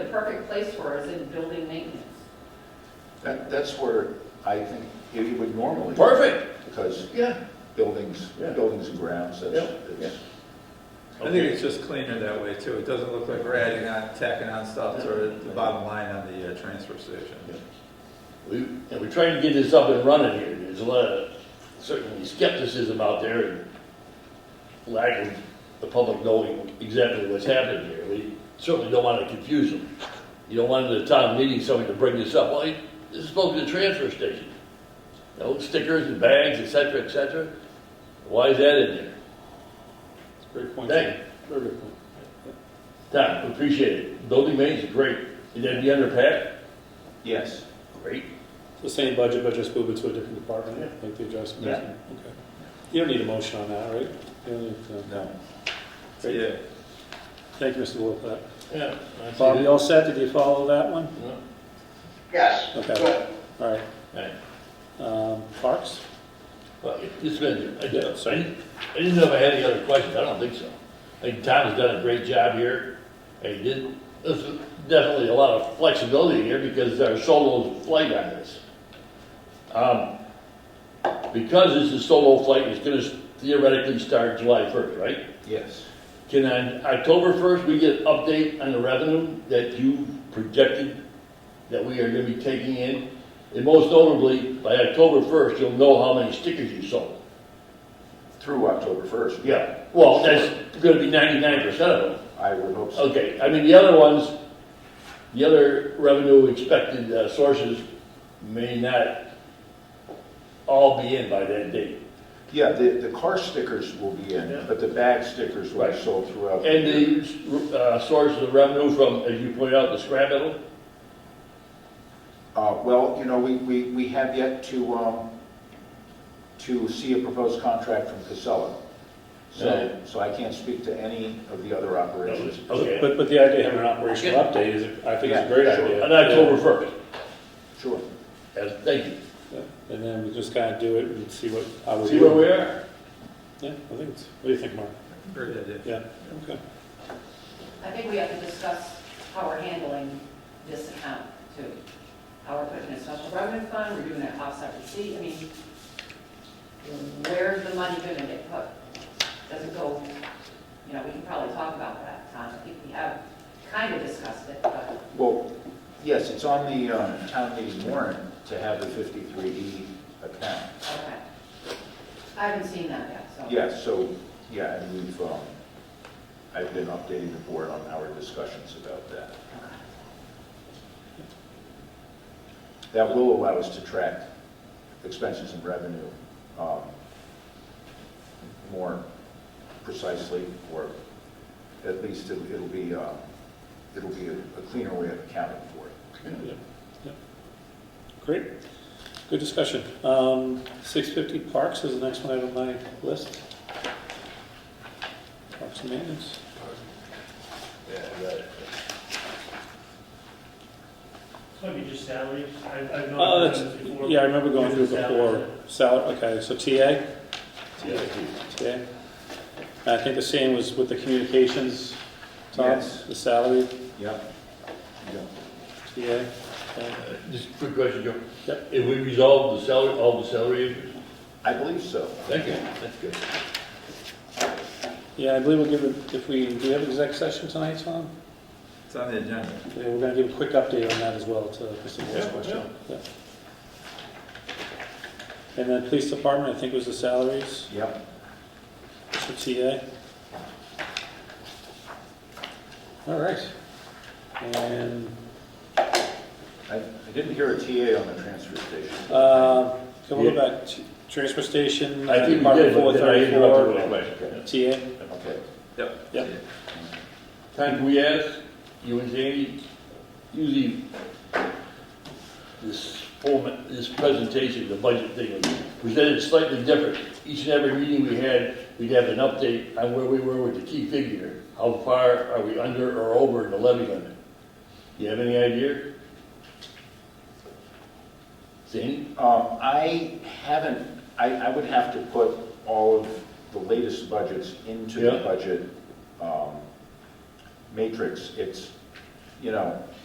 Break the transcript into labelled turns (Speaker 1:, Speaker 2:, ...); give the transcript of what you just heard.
Speaker 1: place for is in building maintenance.
Speaker 2: That, that's where I think it would normally,
Speaker 3: Perfect,
Speaker 2: because
Speaker 3: yeah.
Speaker 2: buildings,
Speaker 3: Yeah.
Speaker 2: buildings and grounds, that's,
Speaker 3: Yeah,
Speaker 2: it's,
Speaker 4: I think it's just cleaner that way too. It doesn't look like we're adding on, tacking on stuff to the bottom line on the uh, transfer station.
Speaker 3: We, and we're trying to get this up and running here. There's a lot of certainly skepticism out there and lack of the public knowing exactly what's happening here. We certainly don't want to confuse them. You don't want at a town meeting somebody to bring this up, well, it- this is supposed to be a transfer station. You know, stickers and bags, et cetera, et cetera. Why is that in there?
Speaker 5: Great point.
Speaker 3: Thank you.
Speaker 5: Very good point.
Speaker 3: Tom, appreciate it. Building maintenance is great. Is that the underpack?
Speaker 2: yes.
Speaker 3: Great.
Speaker 5: So same budget, but just move it to a different department, make the adjustments.
Speaker 2: Yeah.
Speaker 5: Okay. You don't need a motion on that, right? You don't need to-
Speaker 4: No.
Speaker 5: Great.
Speaker 4: Yeah.
Speaker 5: Thank you, Mr. Wolf, for that.
Speaker 3: Yeah. I see
Speaker 5: Bob,
Speaker 3: that.
Speaker 5: you all set? Did you follow that one?
Speaker 3: Yeah.
Speaker 6: Yes.
Speaker 5: Okay.
Speaker 6: Good.
Speaker 5: All right.
Speaker 3: All right.
Speaker 5: Um, Parks?
Speaker 3: Well, it's been, I
Speaker 5: Yeah,
Speaker 3: didn't,
Speaker 5: sorry.
Speaker 3: I didn't know if I had any other questions, I don't think so. I think Tom has done a great job here, and he did, this is definitely a lot of flexibility here because our solo flight on this. Um, Because this is solo flight, it's gonna theoretically start July first, right?
Speaker 2: Yes.
Speaker 3: Can on October first, we get an update on the revenue that you projected that we are gonna be taking in? And most notably, by October first, you'll know how many stickers you sold.
Speaker 2: Through October 1st.
Speaker 3: Yeah, well, that's Oh. gonna be ninety-nine percent of them.
Speaker 2: I would hope so.
Speaker 3: Okay, I mean, the other ones, the other revenue expected uh, sources may not all be in by that date.
Speaker 2: Yeah, the, the car stickers will be in, but the bag stickers will be
Speaker 3: Right.
Speaker 2: sold throughout. the year.
Speaker 3: And the uh, source of revenue from, as you pointed out, the scrap metal?
Speaker 2: Uh, well, you know, we, we, we have yet to, um, to see a proposed contract from Casella. So, so I can't speak to any of the other operations.
Speaker 3: Okay.
Speaker 5: But, but the idea of having an operational
Speaker 3: Yeah.
Speaker 5: update is, I think it's
Speaker 2: Yeah,
Speaker 5: a great
Speaker 2: sure.
Speaker 5: idea.
Speaker 3: On October first,
Speaker 2: Sure.
Speaker 3: Yes, thank you.
Speaker 5: Yeah. And then we just kind of do it and see what, how we do.
Speaker 3: See where we
Speaker 5: it.
Speaker 3: are?
Speaker 5: Yeah, I think it's, what do you think, Mark?
Speaker 4: Great idea.
Speaker 5: Yeah, okay.
Speaker 1: I think we have to discuss how we're handling this account too. How we're putting in a special revenue fund, we're doing an offset receipt, I mean, where's the money gonna get put? Does it go, you know, we can probably talk about that, Tom, I think we have kind of discussed it, but
Speaker 2: Well, yes, it's on the, um, town meeting warrant to have the 53E account.
Speaker 1: Okay. I haven't seen that yet, so.
Speaker 2: Yeah, so, yeah, and we've, um, I've been updating the board on our discussions about that. That will allow us to track expenses and revenue um, more precisely, or at least it'll it'll be, uh, it'll be a a cleaner way of accounting for it.
Speaker 5: Yeah, yeah. Great, good discussion. Um, six fifty Parks is the next one I have on my list. Parks and Maintenance.
Speaker 7: Might be just salaries. I've, I've
Speaker 5: Oh,
Speaker 7: not
Speaker 5: that's-
Speaker 7: done this before.
Speaker 5: Yeah, I remember going through
Speaker 7: Just salaries.
Speaker 5: before. Salary, okay, so TA, TA. I think the same was with the communications, Tom,
Speaker 2: Yes.
Speaker 5: the salary,
Speaker 2: Yep. Yep.
Speaker 5: TA. okay.
Speaker 3: Uh, Just a quick question, Joe.
Speaker 5: Yep.
Speaker 3: If we resolve the salary, all the salary issues?
Speaker 2: I believe so.
Speaker 3: Thank you, that's good.
Speaker 5: Yeah, I believe we'll give, it- if we, do we have exec session tonight, Tom?
Speaker 4: It's on the agenda.
Speaker 5: Yeah, we're gonna give a quick update on that as well to Mr. Moore's question. Yeah. And then police department, I think was the salaries
Speaker 2: Yep.
Speaker 5: for TA. All right. And,
Speaker 2: I I didn't hear a TA on the transfer station.
Speaker 5: uh, can we go back to transfer station?
Speaker 3: I think we
Speaker 5: Department
Speaker 3: did, but then I interrupted
Speaker 5: 434,
Speaker 3: with a question.
Speaker 5: TA,
Speaker 2: Okay.
Speaker 4: Yep.
Speaker 5: Yep.
Speaker 3: Tom, can we ask, you and Jamie, usually this format, this presentation, the budget thing, was presented slightly different. Each and every meeting we had, we'd have an update on where we were with the key figure. How far are we under or over the levy limit? You have any idea? Jamie?
Speaker 2: Um, I haven't, I, I would have to put all of the latest budgets into the
Speaker 3: Yeah.
Speaker 2: budget um, matrix. It's, you know,